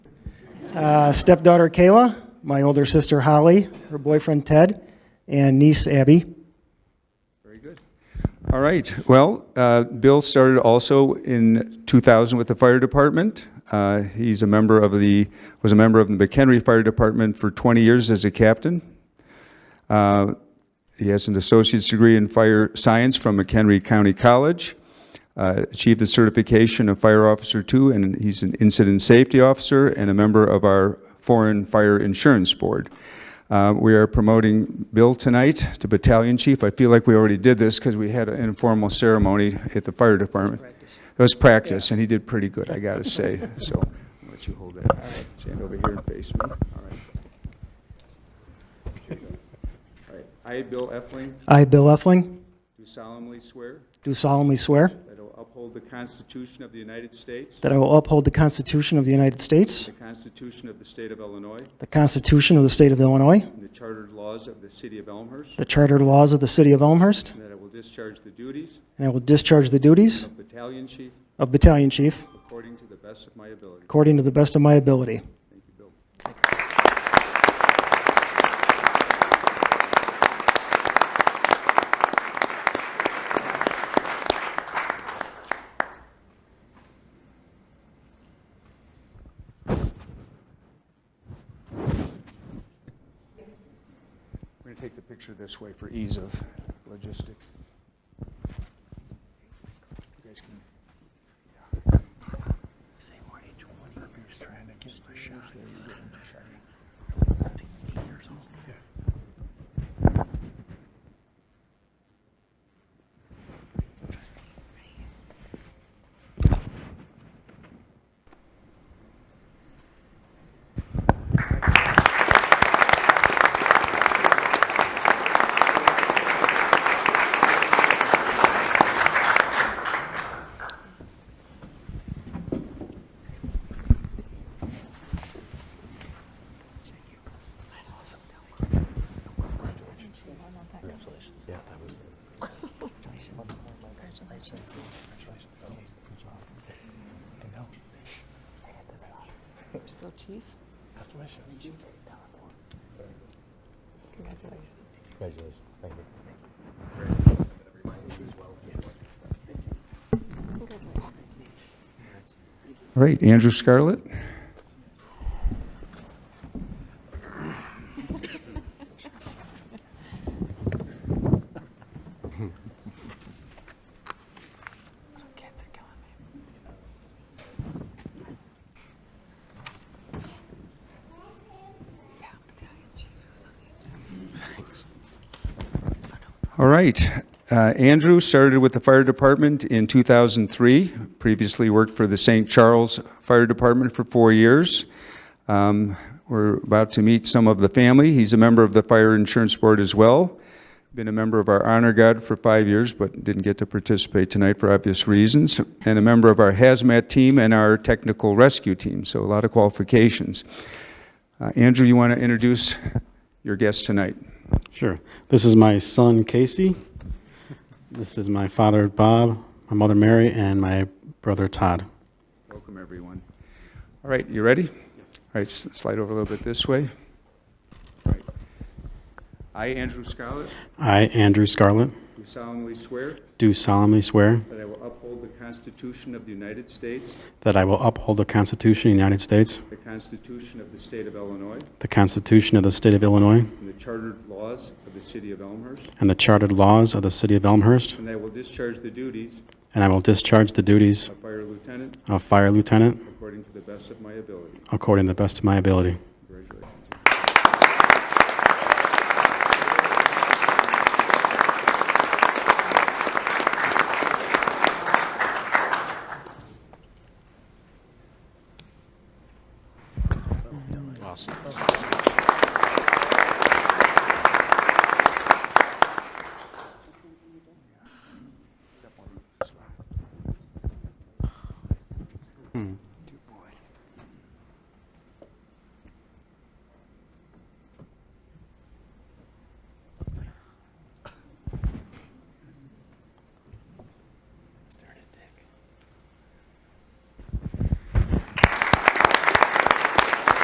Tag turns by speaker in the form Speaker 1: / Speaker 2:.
Speaker 1: uh, stepdaughter Kayla, my older sister Holly, her boyfriend Ted, and niece Abby.
Speaker 2: Very good. All right. Well, uh, Bill started also in 2000 with the fire department. Uh, He's a member of the, was a member of the McHenry Fire Department for 20 years as a captain. Uh, He has an associate's degree in fire science from McHenry County College, uh, achieved the certification of Fire Officer Two, and he's an Incident Safety Officer and a member of our Foreign Fire Insurance Board. Uh, We are promoting Bill tonight to Battalion Chief. I feel like we already did this because we had an informal ceremony at the fire department. It was practice, and he did pretty good, I gotta say, so I'll let you hold that. Stand over here and face me, all right. All right. I, Bill Efling,
Speaker 1: I, Bill Effling,
Speaker 2: do solemnly swear
Speaker 1: do solemnly swear
Speaker 2: that I will uphold the Constitution of the United States,
Speaker 1: that I will uphold the Constitution of the United States,
Speaker 2: the Constitution of the State of Illinois,
Speaker 1: the Constitution of the State of Illinois,
Speaker 2: and the chartered laws of the City of Elmhurst,
Speaker 1: the chartered laws of the City of Elmhurst,
Speaker 2: and that I will discharge the duties
Speaker 1: and I will discharge the duties
Speaker 2: of Battalion Chief
Speaker 1: of Battalion Chief
Speaker 2: according to the best of my ability.
Speaker 1: according to the best of my ability.
Speaker 2: Thank you, Bill. We're going to take the picture this way for ease of logistics. You guys can
Speaker 3: Still chief? Best wishes.
Speaker 4: Congratulations. Thank you.
Speaker 2: All right, Andrew Scarlett.
Speaker 3: Kids are killing me. Yeah, battalion chief who's on the
Speaker 2: All right. Uh, Andrew started with the fire department in 2003, previously worked for the St. Charles Fire Department for four years. Um, We're about to meet some of the family. He's a member of the Fire Insurance Board as well. Been a member of our Honor Guard for five years, but didn't get to participate tonight for obvious reasons, and a member of our hazmat team and our technical rescue team, so a lot of qualifications. Uh, Andrew, you want to introduce your guest tonight?
Speaker 5: Sure. This is my son Casey. This is my father Bob, my mother Mary, and my brother Todd.
Speaker 2: Welcome, everyone. All right, you ready? Yes. All right, s- slide over a little bit this way. All right. I, Andrew Scarlett,
Speaker 5: I, Andrew Scarlett,
Speaker 2: do solemnly swear
Speaker 5: do solemnly swear
Speaker 2: that I will uphold the Constitution of the United States,
Speaker 5: that I will uphold the Constitution of the United States,
Speaker 2: the Constitution of the State of Illinois,
Speaker 5: the Constitution of the State of Illinois,
Speaker 2: and the chartered laws of the City of Elmhurst,
Speaker 5: and the chartered laws of the City of Elmhurst,
Speaker 2: and I will discharge the duties
Speaker 5: and I will discharge the duties
Speaker 2: of fire lieutenant
Speaker 5: of fire lieutenant
Speaker 2: according to the best of my ability.
Speaker 5: according to the best of my ability.
Speaker 2: Congratulations.
Speaker 4: Awesome.